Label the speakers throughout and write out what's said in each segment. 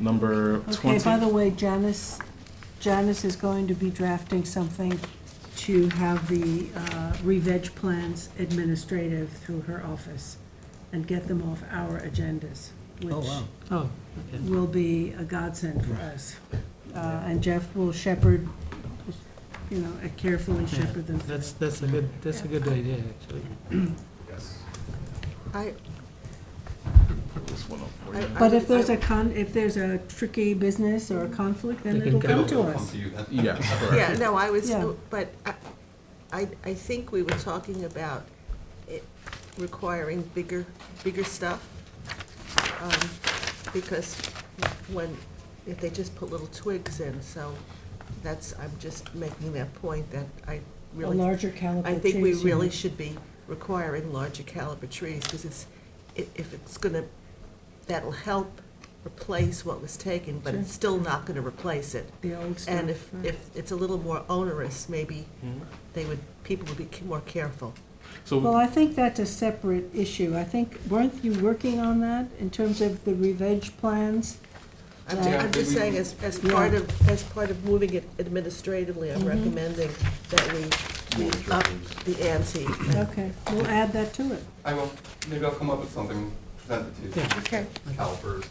Speaker 1: number
Speaker 2: Okay, by the
Speaker 1: twenty.
Speaker 2: way, Janice, Janice is going to be drafting something to have the uh, re-veg plans administrative through her office and get them off our agendas, which
Speaker 3: Oh, okay.
Speaker 2: will be a godsend for us. Uh, And Jeff will shepherd, you know, carefully
Speaker 3: Yeah,
Speaker 2: shepherd them. through.
Speaker 3: That's, that's a good, that's a good idea, actually.
Speaker 1: Yes.
Speaker 4: I,
Speaker 1: Put this one up for
Speaker 4: I-
Speaker 1: you.
Speaker 4: I
Speaker 2: But
Speaker 4: would-
Speaker 2: if there's
Speaker 4: I-
Speaker 2: a con, if there's a tricky business or a conflict, then
Speaker 3: They can
Speaker 2: it'll come
Speaker 3: come.
Speaker 2: to us.
Speaker 1: Yes,
Speaker 4: Yeah,
Speaker 1: correct.
Speaker 4: no, I was,
Speaker 2: Yeah.
Speaker 4: but I- I, I think we were talking about it requiring bigger, bigger stuff. um, Because when, if they just put little twigs in, so that's, I'm just making that point that I
Speaker 2: A
Speaker 4: really
Speaker 2: larger caliber
Speaker 4: I think we
Speaker 2: trees, you
Speaker 4: really
Speaker 2: know.
Speaker 4: should be requiring larger caliber trees, because it's, i- if it's gonna, that'll help replace what was taken, but it's
Speaker 2: Sure.
Speaker 4: still not gonna replace it.
Speaker 2: The old stuff.
Speaker 4: And if,
Speaker 2: right.
Speaker 4: if it's a little more onerous, maybe they would, people would be c- more careful.
Speaker 2: Well,
Speaker 1: So,
Speaker 2: I think that's a separate issue. I think, weren't you working on that in terms of the revenge plans?
Speaker 4: I'm ju-
Speaker 2: Yeah.
Speaker 4: I'm just saying, as, as
Speaker 2: Yeah.
Speaker 4: part of, as part of moving it administratively, I'm
Speaker 2: Mhm.
Speaker 4: recommending that we, we up the ante.
Speaker 2: Okay, we'll add that to it.
Speaker 5: I will, maybe I'll come up with something, present it to you.
Speaker 3: Yeah.
Speaker 4: Okay.
Speaker 5: Calipers.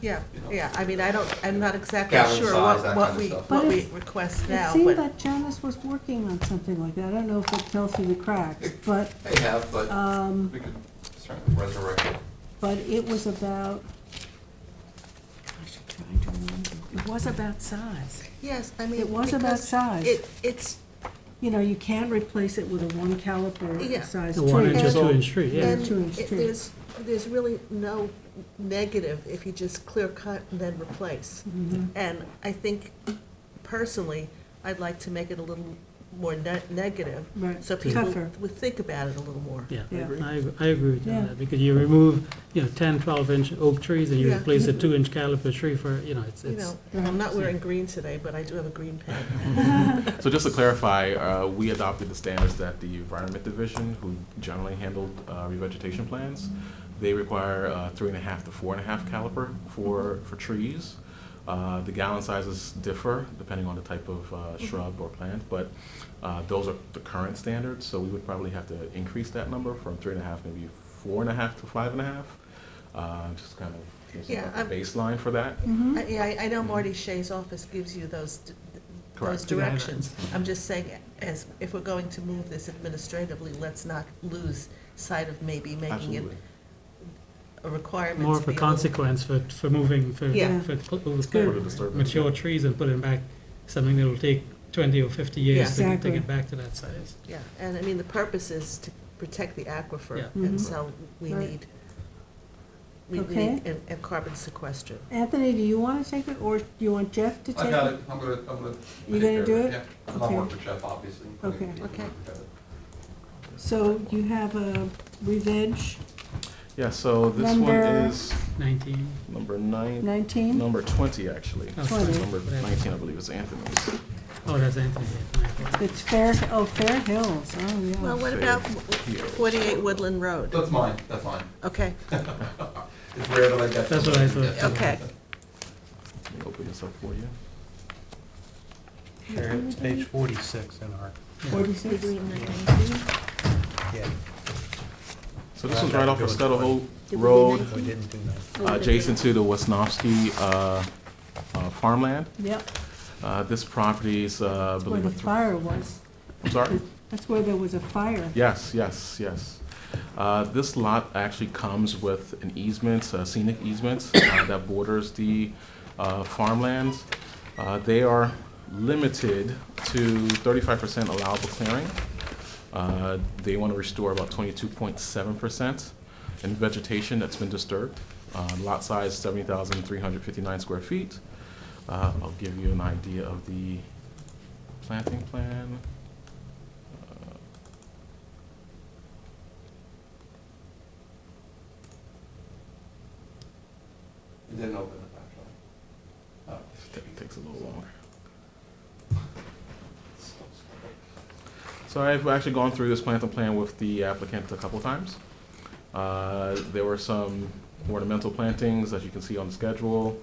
Speaker 4: Yeah, yeah, I mean, I don't, I'm not exactly
Speaker 5: Gallon
Speaker 4: sure
Speaker 5: size,
Speaker 4: what,
Speaker 5: that
Speaker 4: what
Speaker 5: kind of
Speaker 4: we,
Speaker 5: stuff.
Speaker 4: what
Speaker 2: But
Speaker 4: we
Speaker 2: it's-
Speaker 4: request
Speaker 2: It
Speaker 4: now,
Speaker 2: seemed
Speaker 4: but,
Speaker 2: that Janice was working on something like that. I don't know if it fell through the cracks, but,
Speaker 5: They have, but
Speaker 2: um,
Speaker 5: we could certainly resurrect it.
Speaker 2: but it was about, gosh, I'm trying to remember. It was about size.
Speaker 4: yes, I mean.
Speaker 2: It was about
Speaker 4: because
Speaker 2: size.
Speaker 4: It, it's,
Speaker 2: You know, you can't replace it with a one caliper
Speaker 4: Yeah.
Speaker 2: size
Speaker 3: The
Speaker 2: tree.
Speaker 3: one inch or
Speaker 4: And-
Speaker 3: two inch tree, yeah.
Speaker 4: And
Speaker 2: Two-inch
Speaker 4: it-
Speaker 2: tree.
Speaker 4: there's, there's really no negative if you just clear cut and then replace.
Speaker 2: Mhm.
Speaker 4: And I think personally, I'd like to make it a little more ne- negative,
Speaker 2: Right.
Speaker 4: so people
Speaker 2: Tougher.
Speaker 4: would think about it a little more.
Speaker 3: Yeah, I
Speaker 2: Yeah.
Speaker 3: agree- I, ag- I agree with you on
Speaker 2: Yeah.
Speaker 3: that, because you remove, you know, 10, 12-inch oak trees, and you
Speaker 4: Yeah.
Speaker 3: replace a two-inch caliper tree for, you know, it's,
Speaker 4: You
Speaker 3: it's,
Speaker 4: know, I'm not wearing green today, but I do have a green pen.
Speaker 1: so just to clarify, uh, we adopted the standards that the Environment Division, who generally handled uh, revegetation plans, they require uh, three and a half to four and a half caliper for, for trees. Uh, The gallon sizes differ depending on the type of uh,
Speaker 4: Mm-hmm.
Speaker 1: shrub or plant, but uh, those are the current standards, so we would probably have to increase that number from three and a half, maybe four and a half to five and a half. Uh, Just kind of, give us
Speaker 4: Yeah,
Speaker 1: a
Speaker 4: I'm-
Speaker 1: baseline for that.
Speaker 2: Mhm.
Speaker 4: I- Yeah, I- I know Marty Shea's office gives you those, d- d- those
Speaker 1: Correct.
Speaker 4: directions. I'm just saying, as, if we're going to move this administratively, let's not lose sight of maybe making it
Speaker 1: Absolutely.
Speaker 4: a requirement.
Speaker 3: more
Speaker 4: to
Speaker 3: of a
Speaker 4: be able-
Speaker 3: consequence for, for moving, for,
Speaker 4: Yeah.
Speaker 3: for cl-
Speaker 1: For
Speaker 3: over
Speaker 1: the disturbance,
Speaker 3: mature
Speaker 1: yeah.
Speaker 3: trees and putting back something that'll take 20 or 50 years
Speaker 2: Yeah.
Speaker 3: to to
Speaker 2: Exactly.
Speaker 3: get back to that size.
Speaker 4: Yeah, and I mean, the purpose is to protect the aquifer,
Speaker 3: Yeah.
Speaker 4: and
Speaker 2: Mhm.
Speaker 4: so we
Speaker 2: Right.
Speaker 4: need, we
Speaker 2: Okay.
Speaker 4: need, and, and carbon sequestra.
Speaker 2: Anthony, do you want to take it, or do you want Jeff to take it?
Speaker 5: I got it, I'm gonna, I'm gonna.
Speaker 2: You
Speaker 5: take
Speaker 2: gonna
Speaker 5: care of
Speaker 2: do it?
Speaker 5: Yeah, I'll
Speaker 2: Okay.
Speaker 5: work with Jeff, obviously. and
Speaker 2: Okay.
Speaker 5: he can
Speaker 4: Okay.
Speaker 5: work together.
Speaker 2: So you have a revenge
Speaker 1: Yeah, so this one
Speaker 2: Number-
Speaker 1: is
Speaker 3: 19,
Speaker 1: number nine.
Speaker 2: 19?
Speaker 1: Number 20, actually.
Speaker 3: Oh,
Speaker 2: sorry.
Speaker 1: Number
Speaker 3: Whatever.
Speaker 1: 19, I believe, is Anthony's.
Speaker 3: oh, that's Anthony, yeah, my fault.
Speaker 2: It's Fair, oh, Fair Hills, oh, yeah.
Speaker 4: Well, what
Speaker 1: Fair
Speaker 4: about
Speaker 1: Hills.
Speaker 4: 48 Woodland Road?
Speaker 5: That's mine, that's mine.
Speaker 4: Okay,
Speaker 5: It's rare that I get.
Speaker 3: That's what I thought.
Speaker 5: Yeah.
Speaker 4: okay.
Speaker 1: Let me open this up for you.
Speaker 6: Sure, it's page forty-six in our,
Speaker 2: Forty-six?
Speaker 6: yeah,
Speaker 1: So this was right off of Scuttle Hole
Speaker 4: Did we do
Speaker 1: Road,
Speaker 6: we didn't do that.
Speaker 1: uh, adjacent to the Wasnovsky uh, uh, farmland.
Speaker 2: Yep,
Speaker 1: Uh, This property is, uh, I
Speaker 2: where
Speaker 1: believe,
Speaker 2: the
Speaker 1: a thr-
Speaker 2: fire was.
Speaker 1: I'm sorry?
Speaker 2: That's where there was a fire.
Speaker 1: Yes, yes, yes. Uh, This lot actually comes with an easement, a scenic easement uh, that borders the uh, farmlands. Uh, They are limited to thirty-five percent allowable clearing. Uh, They want to restore about twenty-two point seven percent in vegetation that's been disturbed. Uh, Lot size seventy thousand three hundred fifty-nine square feet. Uh, I'll give you an idea of the planting plan. Uh,
Speaker 5: You didn't open it, actually.
Speaker 1: It takes a little longer. So I've actually gone through this planting plan with the applicant a couple times. Uh, There were some ornamental plantings, as you can see on the schedule.